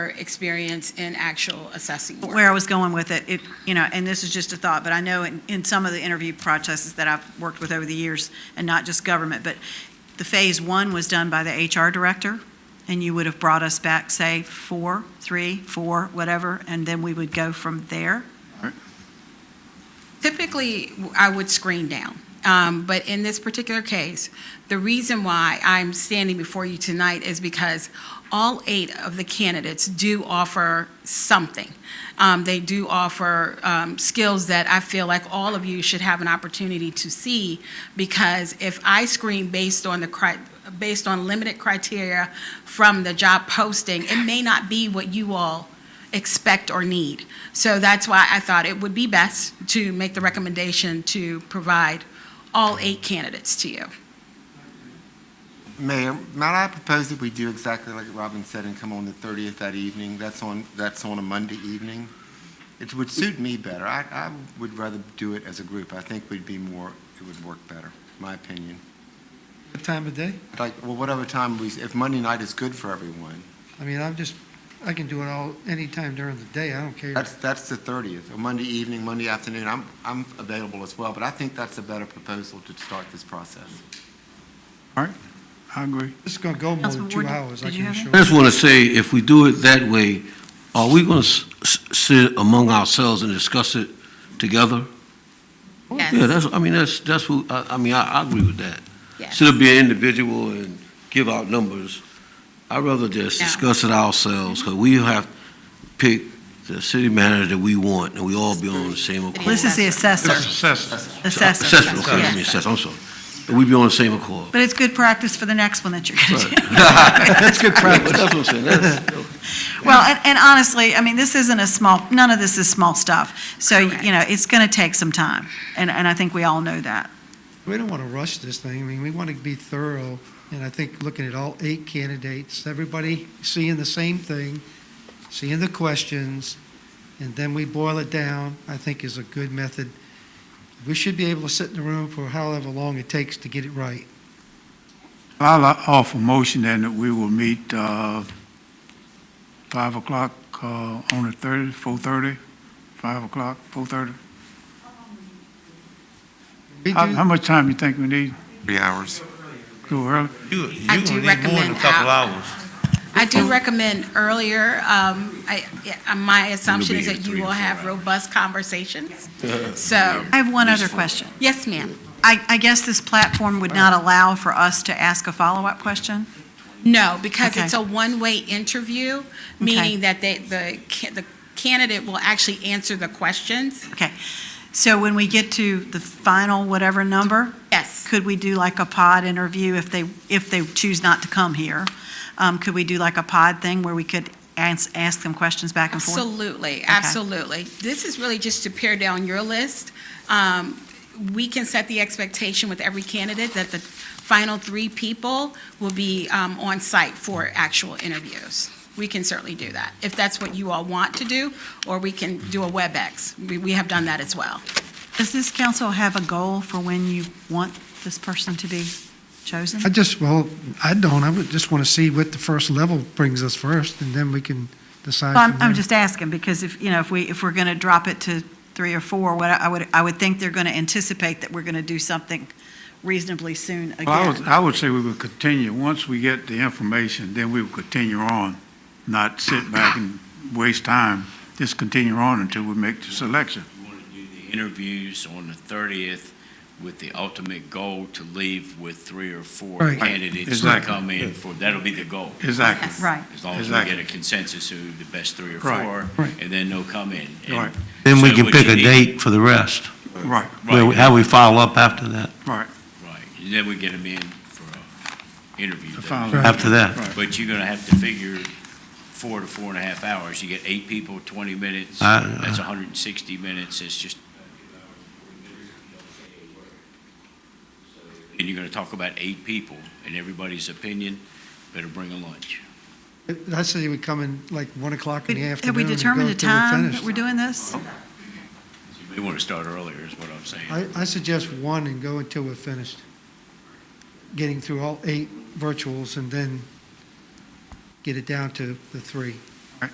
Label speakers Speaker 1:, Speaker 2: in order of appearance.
Speaker 1: experience in actual assessing work.
Speaker 2: where I was going with it, it, you know, and this is just a thought, but I know in, in some of the interview processes that I've worked with over the years, and not just government, but the phase one was done by the HR director, and you would have brought us back, say, four, three, four, whatever, and then we would go from there.
Speaker 1: Typically, I would screen down. Um, But in this particular case, the reason why I'm standing before you tonight is because all eight of the candidates do offer something. Um, They do offer um, skills that I feel like all of you should have an opportunity to see, because if I screen based on the cri- based on limited criteria from the job posting, it may not be what you all expect or need. So that's why I thought it would be best to make the recommendation to provide all eight candidates to you.
Speaker 3: Mayor, might I propose that we do exactly like Robin said and come on the 30th that evening? That's on, that's on a Monday evening. It would suit me better. I, I would rather do it as a group. I think we'd be more, it would work better, my opinion.
Speaker 4: What time of day?
Speaker 3: Like, well, whatever time we, if Monday night is good for everyone,
Speaker 4: I mean, I'm just, I can do it all, anytime during the day, I don't care.
Speaker 3: that's, that's the 30th, or Monday evening, Monday afternoon, I'm, I'm available as well, but I think that's a better proposal to start this process.
Speaker 5: All right, I agree.
Speaker 4: It's gonna go more than
Speaker 2: Councilman
Speaker 4: two
Speaker 2: Ward,
Speaker 4: hours, I
Speaker 2: did you
Speaker 4: can
Speaker 2: have
Speaker 4: assure
Speaker 6: I
Speaker 4: you.
Speaker 6: just want to say, if we do it that way, are we going to sit among ourselves and discuss it together? Yeah,
Speaker 1: Yes,
Speaker 6: that's, I mean, that's, that's what, I, I mean, I, I agree with that.
Speaker 1: yes.
Speaker 6: Instead of being individual and give out numbers, I'd rather just
Speaker 1: Yeah.
Speaker 6: discuss it ourselves, because we have pick the city manager that we want, and we all be on the same accord.
Speaker 2: This is the
Speaker 5: That's
Speaker 2: assessor,
Speaker 5: assessment.
Speaker 2: assessor.
Speaker 6: Assessment, okay,
Speaker 1: Yes.
Speaker 6: I mean, assessment, I'm sorry. And we be on the same accord.
Speaker 2: But it's good practice for the next one that you're going to do.
Speaker 6: That's good practice. That's what I'm saying, that's,
Speaker 2: Well, and, and honestly, I mean, this isn't a small, none of this is small stuff. So, you know, it's going to take some time, and, and I think we all know that.
Speaker 4: We don't wanna rush this thing, I mean, we wanna be thorough, and I think looking at all eight candidates, everybody seeing the same thing, seeing the questions, and then we boil it down, I think is a good method. We should be able to sit in the room for however long it takes to get it right.
Speaker 5: I'll offer motion then that we will meet, uh, five o'clock, uh, on the thirty, four-thirty, five o'clock, four-thirty.
Speaker 4: We
Speaker 5: How,
Speaker 4: do-
Speaker 5: how much time you think we need?
Speaker 3: Three hours.
Speaker 5: Go early?
Speaker 7: You,
Speaker 1: I
Speaker 7: you're gonna
Speaker 1: do
Speaker 7: need more than
Speaker 1: recommend
Speaker 7: a couple
Speaker 1: out-
Speaker 7: hours.
Speaker 1: I do recommend earlier, um, I, yeah, my assumption is that you will have robust conversations. So,
Speaker 2: I have one other question.
Speaker 1: yes, ma'am.
Speaker 2: I, I guess this platform would not allow for us to ask a follow-up question?
Speaker 1: No, because
Speaker 2: Okay.
Speaker 1: it's a one-way interview, meaning that they, the, ca- the candidate will actually answer the questions.
Speaker 2: Okay. So when we get to the final whatever number,
Speaker 1: Yes.
Speaker 2: could we do like a pod interview if they, if they choose not to come here? Um, could we do like a pod thing where we could ask, ask them questions back and forth?
Speaker 1: Absolutely, absolutely. This is really just to pare down your list. Um, We can set the expectation with every candidate that the final three people will be um, on site for actual interviews. We can certainly do that, if that's what you all want to do, or we can do a WebEx. We- We have done that as well.
Speaker 2: Does this council have a goal for when you want this person to be chosen?
Speaker 4: I just, well, I don't, I would just want to see what the first level brings us first, and then we can decide.
Speaker 2: Well, I'm,
Speaker 4: from
Speaker 2: I'm
Speaker 4: there.
Speaker 2: just asking, because if, you know, if we, if we're going to drop it to three or four, what I I would, I would think they're going to anticipate that we're going to do something reasonably soon
Speaker 5: Well, I
Speaker 2: again.
Speaker 5: would, I would say we would continue, once we get the information, then we would continue on, not sit back and waste time, just continue on until we make the selection.
Speaker 8: We want to do the interviews on the 30th with the ultimate goal to leave with three or four
Speaker 4: Right.
Speaker 8: candidates to
Speaker 5: Exactly.
Speaker 8: come in for, that'll be the goal.
Speaker 5: Exactly.
Speaker 2: Right.
Speaker 8: As long as we
Speaker 5: Exactly.
Speaker 8: get a consensus who the best three or
Speaker 5: Right,
Speaker 8: four,
Speaker 4: right.
Speaker 8: and then they'll come in. And
Speaker 5: Right.
Speaker 6: then we
Speaker 8: so
Speaker 6: can
Speaker 8: what
Speaker 6: pick
Speaker 8: you
Speaker 6: a
Speaker 8: need-
Speaker 6: date for the rest,
Speaker 5: Right,
Speaker 6: where- how we follow up after that.
Speaker 5: right.
Speaker 8: Right, and then we get them in for a interview.
Speaker 5: The final-
Speaker 6: After that.
Speaker 5: Right.
Speaker 8: But you're gonna have to figure four to four and a half hours. You get eight people, 20 minutes,
Speaker 6: I-
Speaker 8: that's 160 minutes, it's just... And you're gonna talk about eight people, and everybody's opinion, better bring a lunch.
Speaker 4: I say we come in like 1 o'clock in the afternoon.
Speaker 2: Have we
Speaker 4: and go
Speaker 2: determined a
Speaker 4: till we're
Speaker 2: time that
Speaker 4: finished.
Speaker 2: we're doing this?
Speaker 8: You may wanna start earlier, is what I'm saying.
Speaker 4: I, I suggest 1 and go until we're finished. Getting through all eight virtuals and then get it down to the three.